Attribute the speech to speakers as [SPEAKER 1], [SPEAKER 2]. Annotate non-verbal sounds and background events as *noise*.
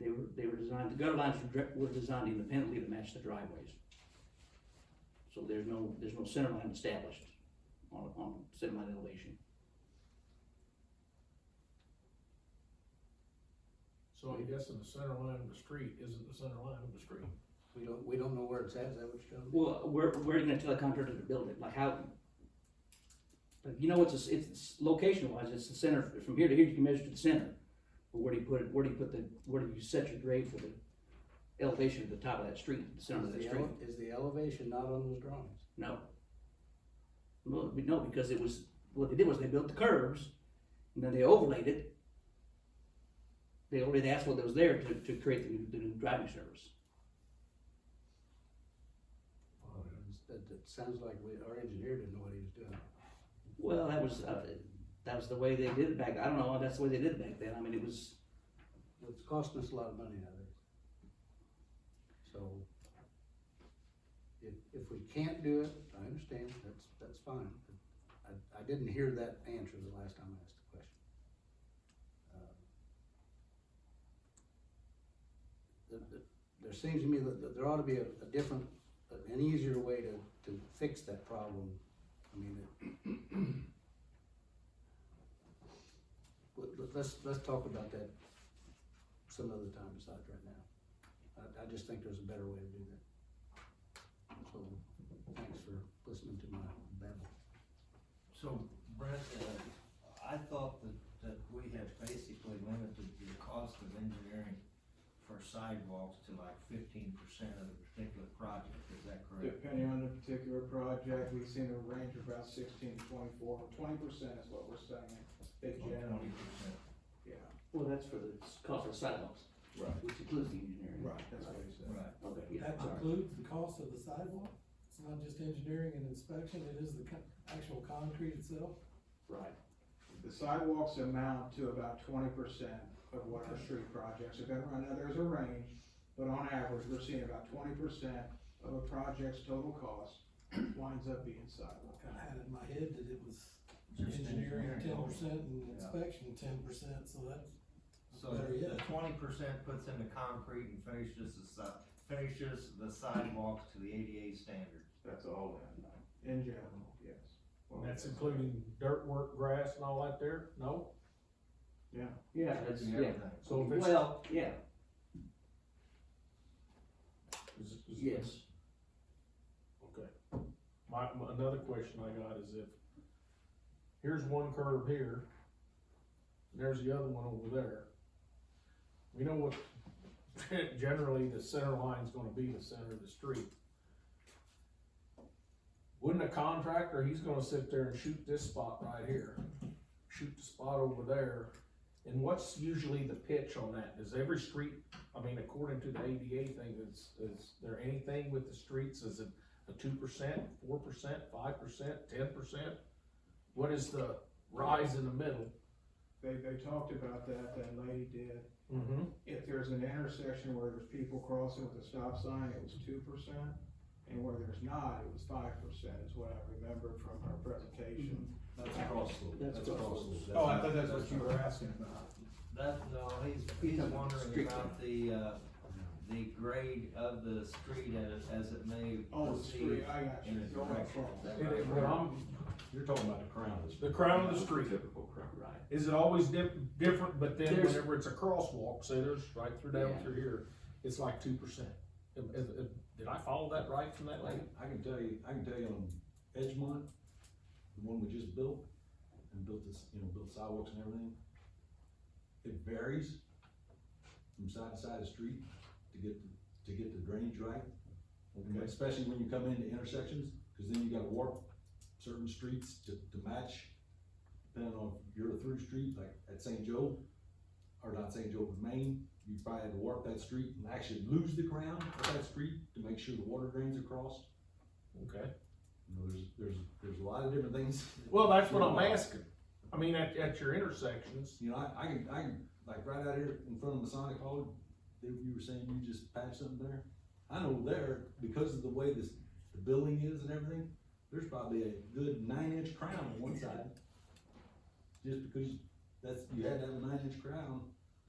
[SPEAKER 1] they were, they were designed, the gutter lines were dre- were designed independently to match the driveways. So there's no, there's no center line established on, on center line elevation.
[SPEAKER 2] So I'm guessing the center line of the street isn't the center line of the street.
[SPEAKER 3] We don't, we don't know where it's at, is that what you're telling me?
[SPEAKER 1] Well, we're, we're gonna tell the contractor to build it, like how? Like, you know, it's, a s- it's, location wise, it's the center, from here to here, you can measure to the center. But where do you put it, where do you put the, where do you set your grade for the elevation at the top of that street, the center of
[SPEAKER 3] Is
[SPEAKER 1] that
[SPEAKER 3] the
[SPEAKER 1] street?
[SPEAKER 3] ele- Is the elevation not on those drawings?
[SPEAKER 1] No. Well, we- no, because it was, what they did was they built the curves, and then they overlaid it. They overlaid the asphalt that was there to, to create the new, the new driving surface.
[SPEAKER 3] That, that sounds like we, our engineer didn't know what he was doing.
[SPEAKER 1] Well, that was, uh, that was the way they did it back, I don't know, that's the way they did it back then, I mean, it was,
[SPEAKER 3] It's costing us a lot of money nowadays. So if, if we can't do it, I understand, that's, that's fine. I, I didn't hear that answer the last time I asked the question. Uh, the- the- There seems to me that, that there ought to be a, a different, an easier way to, to fix that problem. I mean, it. *clears throat* Let- let- let's, let's talk about that some other time besides right now. I, I just think there's a better way to do that. So, thanks for listening to my babble.
[SPEAKER 4] So Brent, uh, I thought that, that we had basically limited the cost of engineering for sidewalks to like fifteen percent of the particular project, is that correct?
[SPEAKER 5] Depending on the particular project, we've seen a range of about sixteen to twenty-four, twenty percent is what we're saying, in general,
[SPEAKER 4] Twenty percent.
[SPEAKER 5] yeah.
[SPEAKER 1] well, that's for the cost of sidewalks,
[SPEAKER 5] Right.
[SPEAKER 1] which includes the engineering.
[SPEAKER 5] Right, that's what he said.
[SPEAKER 4] Right,
[SPEAKER 1] Okay, yeah,
[SPEAKER 6] That
[SPEAKER 1] all right.
[SPEAKER 6] includes the cost of the sidewalk? It's not just engineering and inspection, it is the co- actual concrete itself?
[SPEAKER 1] right,
[SPEAKER 5] The sidewalks amount to about twenty percent of what our street projects are gonna run, now there's a range, but on average, we're seeing about twenty percent of a project's total cost winds up being sidewalk.
[SPEAKER 6] I had in my head that it was
[SPEAKER 4] just
[SPEAKER 6] engineering ten
[SPEAKER 4] only.
[SPEAKER 6] percent and
[SPEAKER 4] Yeah.
[SPEAKER 6] inspection ten percent, so that's
[SPEAKER 4] So
[SPEAKER 6] better
[SPEAKER 4] the
[SPEAKER 6] yet.
[SPEAKER 4] twenty percent puts in the concrete and finishes the si- finishes the sidewalks to the ADA standard.
[SPEAKER 5] That's all in, in general, yes. Oh,
[SPEAKER 2] That's including dirt work, grass and all that there, no?
[SPEAKER 5] Yeah.
[SPEAKER 1] yeah, that's,
[SPEAKER 4] That's
[SPEAKER 1] yeah,
[SPEAKER 4] everything.
[SPEAKER 2] So if it's,
[SPEAKER 1] well, yeah, yes,
[SPEAKER 2] okay. My, my- another question I got is if, here's one curve here, and there's the other one over there. We know what, *laughs* generally, the center line's gonna be the center of the street. Wouldn't a contractor, he's gonna sit there and shoot this spot right here, shoot the spot over there, and what's usually the pitch on that? Is every street, I mean, according to the ADA thing, is, is there anything with the streets, is it a two percent, four percent, five percent, ten percent? What is the rise in the middle?
[SPEAKER 5] They, they talked about that, that lady did,
[SPEAKER 2] Mm-hmm.
[SPEAKER 5] if there's an intersection where there's people crossing with a stop sign, it was two percent. And where there's not, it was five percent is what I remember from her presentation.
[SPEAKER 4] That's across the.
[SPEAKER 1] That's across the-
[SPEAKER 4] the-
[SPEAKER 5] Oh, were asking about.
[SPEAKER 4] That, no, he's, he's wondering about the, uh, the grade of the street as, as it may
[SPEAKER 5] Oh, the
[SPEAKER 4] proceed.
[SPEAKER 5] street, I got you,
[SPEAKER 4] in the
[SPEAKER 5] going
[SPEAKER 4] direction.
[SPEAKER 5] across.
[SPEAKER 2] It, it, when I'm,
[SPEAKER 7] You're talking about the crown of the street.
[SPEAKER 2] The crown of the street.
[SPEAKER 7] Typical crown.
[SPEAKER 1] right.
[SPEAKER 2] is it always dif- different, but then
[SPEAKER 1] There's-
[SPEAKER 2] whenever it's a crosswalk, say there's right through down
[SPEAKER 1] Yeah.
[SPEAKER 2] through here, it's like two percent. Did I follow that right from that
[SPEAKER 7] I
[SPEAKER 2] lady?
[SPEAKER 7] can, I can tell you, I can tell you on Edgemont, the one we just built, and built this, you know, built sidewalks and everything. It varies from side to side of the street to get, the- to get the drainage right.
[SPEAKER 2] Okay.
[SPEAKER 7] Especially when you come into intersections, cause then you gotta warp certain streets to, to match. Depending on if you're a through street, like at St. Joe, or not St. Joe, but Maine, you probably had to warp that street and actually lose the ground of that street to make sure the water drains across.
[SPEAKER 2] Okay.
[SPEAKER 7] You know, there's, there's, there's a lot of different things. *laughs*
[SPEAKER 2] Well, that's what I'm asking. I mean, at, at your intersections,
[SPEAKER 7] You know, I, I can, I can, like right out here in front of Masonic Hall, there you were saying you just patched something there. I know there, because of the way this, the building is and everything, there's probably a good nine inch crown on one side. Just because that's, you had to have a nine inch crown